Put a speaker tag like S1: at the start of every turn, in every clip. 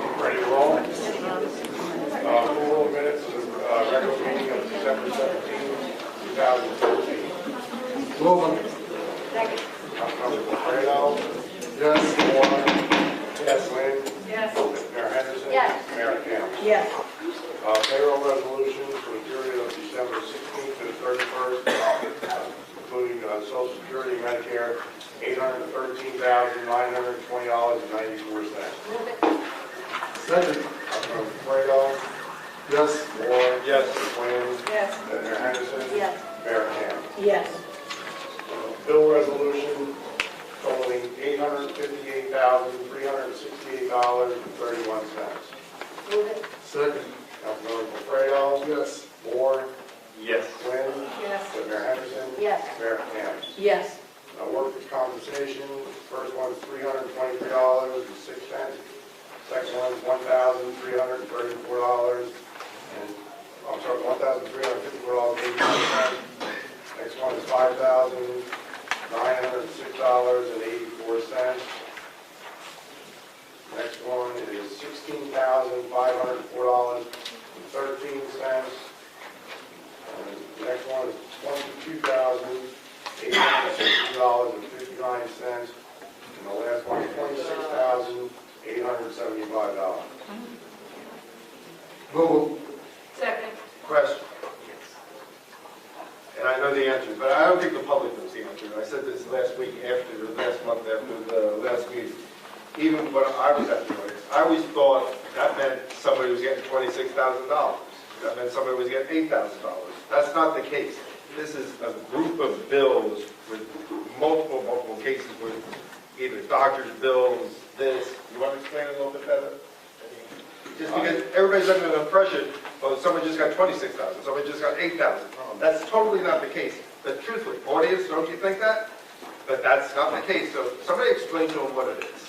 S1: Uh, uh,
S2: Yes.
S1: Mayor Campbell.
S3: Yes.
S1: Uh, Payroll resolution for the period of December 16th to the 31st, including uh, Social Security, Medicare, $813,920.94.
S2: Move it.
S4: Second.
S1: Councilmember Fredo,
S4: Yes.
S1: Moore.
S4: Yes.
S1: Quinn.
S3: Yes.
S1: Senator Henderson.
S2: Yes.
S1: Mayor Campbell.
S3: Yes.
S1: Bill resolution totaling $858,368.31.
S2: Move it.
S4: Second.
S1: Councilmember Fredo,
S4: Yes.
S1: Moore,
S4: Yes.
S1: Quinn.
S3: Yes.
S1: Senator Henderson.
S2: Yes.
S1: Mayor Campbell.
S3: Yes.
S1: Uh, Workers' compensation, first one's three hundred and twenty-three dollars and six cents. Second one's one thousand three hundred and thirty-four dollars and, I'm sorry, one thousand three hundred and fifty-four dollars and eighty-four cents. Next one is five thousand nine hundred and six dollars and eighty-four cents. Next one is sixteen thousand five hundred and four dollars and thirteen cents. Next one is twenty-two thousand eight hundred sixty dollars and fifty-nine cents, and the last one, twenty-six thousand, eight hundred seventy-five dollars.
S4: Move.
S2: Second.
S5: question. And I know the answer, but I don't think the public knows the answer. I said this last week after, or last month after the last meeting. Even when I was at the place, I always thought that meant somebody was getting twenty-six thousand dollars. That meant somebody was getting eight thousand dollars. That's not the case. This is a group of bills with multiple, multiple cases with either doctor's bills, this. You want to explain it a little bit better? Just because everybody's under the impression, well, someone just got 26,000, someone just got 8,000. That's totally not the case. But truthfully, audience, don't you think that? But that's not the case, so somebody explain to them what it is.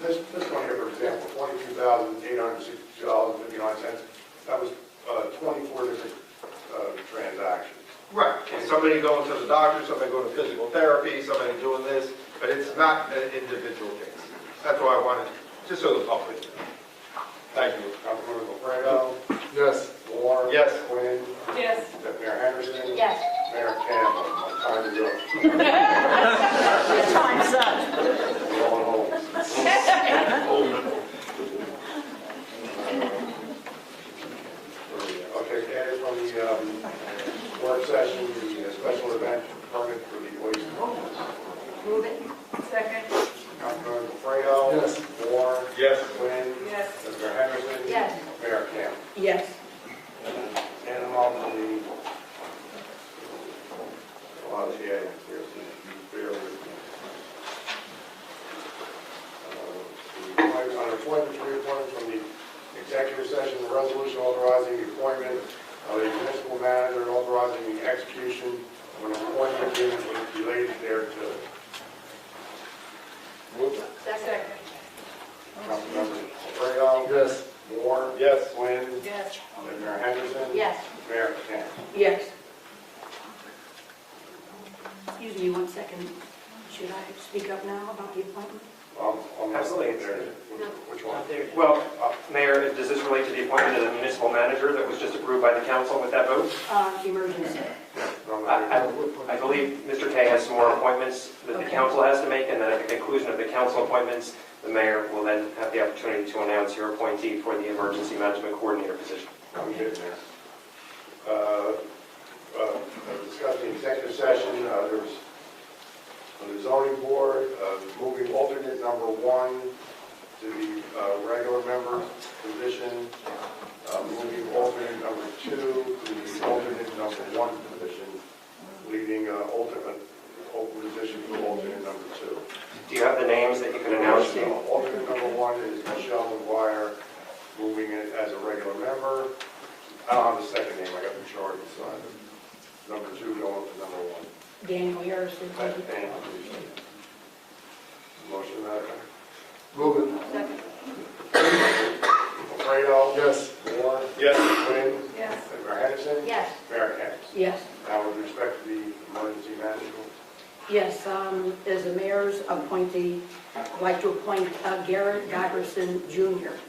S1: This, this one here, for example, twenty-two thousand, eight hundred sixty dollars and fifty-nine cents, that was, uh, twenty-four different, uh, transactions.
S5: Right. And somebody going to the doctor, somebody going to physical therapy, somebody doing this, but it's not an individual case. That's why I wanted, just so the public knows. Thank you.
S1: Councilmember Lefredo,
S4: Yes.
S1: Moore.
S5: Yes.
S1: Quinn,
S3: Yes.
S1: Deputy Mayor Henderson.
S2: Yes.
S1: Mayor Campbell, my time is up.
S3: Time's up.
S1: We're all home. Okay, added from the um, work session, the uh, special event permit for the Oyster
S2: Move it. Second.
S1: Councilmember Fredo.
S4: Yes.
S1: Moore.
S5: Yes.
S1: Quinn.
S3: Yes.
S1: Mr. Henderson.
S2: Yes.
S1: Mayor Campbell.
S3: Yes.
S1: And I'm on the, a lot of the items here, so you bear with me. Uh, the appointment- On appointments, reappointments from the executive session, the resolution authorizing the appointment of a municipal manager and authorizing the execution of an appointment agreement related thereto.
S2: Second.
S1: Councilmembers Fredo,
S4: Yes.
S1: Moore,
S5: Yes.
S1: Quinn,
S2: Yes.
S1: Mayor Henderson.
S2: Yes.
S1: Mayor Campbell.
S3: Yes. Excuse me one second. Should I speak up now about the appointment?
S1: Um, on the-
S6: Absolutely.
S1: Which one?
S6: Well, uh, Mayor, does this relate to the appointment of the municipal manager that was just approved by the council with that vote?
S3: Uh, emergency.
S1: No, no,
S6: I-
S1: no.
S6: I I believe Mr. Kay has some more appointments that the
S3: Okay.
S6: council has to make, and then at the conclusion of the council appointments, the mayor will then have the opportunity to announce your appointee for the emergency management coordinator position.
S1: I'm getting there. Uh, uh, Discuss the executive session, uh, there was, on the zoning board, uh, moving alternate number one to the uh, regular member position, uh, moving alternate number two to the alternate number one position, leaving uh, alternate, open position for alternate number two.
S6: Do you have the names that you can announce?
S1: Michelle, alternate number one is Michelle McGuire, moving it as a regular member. I don't have the second name, I got the chart inside. Number two going to number one.
S3: Daniel Harrison.
S1: That- and- Motion, Madam
S4: Move it.
S2: Second.
S1: Mayor. Fredo?
S4: Yes.
S1: Moore?
S5: Yes.
S1: Quinn?
S2: Yes.
S1: Mayor Henderson?
S2: Yes.
S1: Mayor Kennas.
S3: Yes.
S1: Now, with respect to the emergency management,
S3: Yes, um, as the mayor's appointee, I'd like to appoint uh, Garrett Godderson Jr.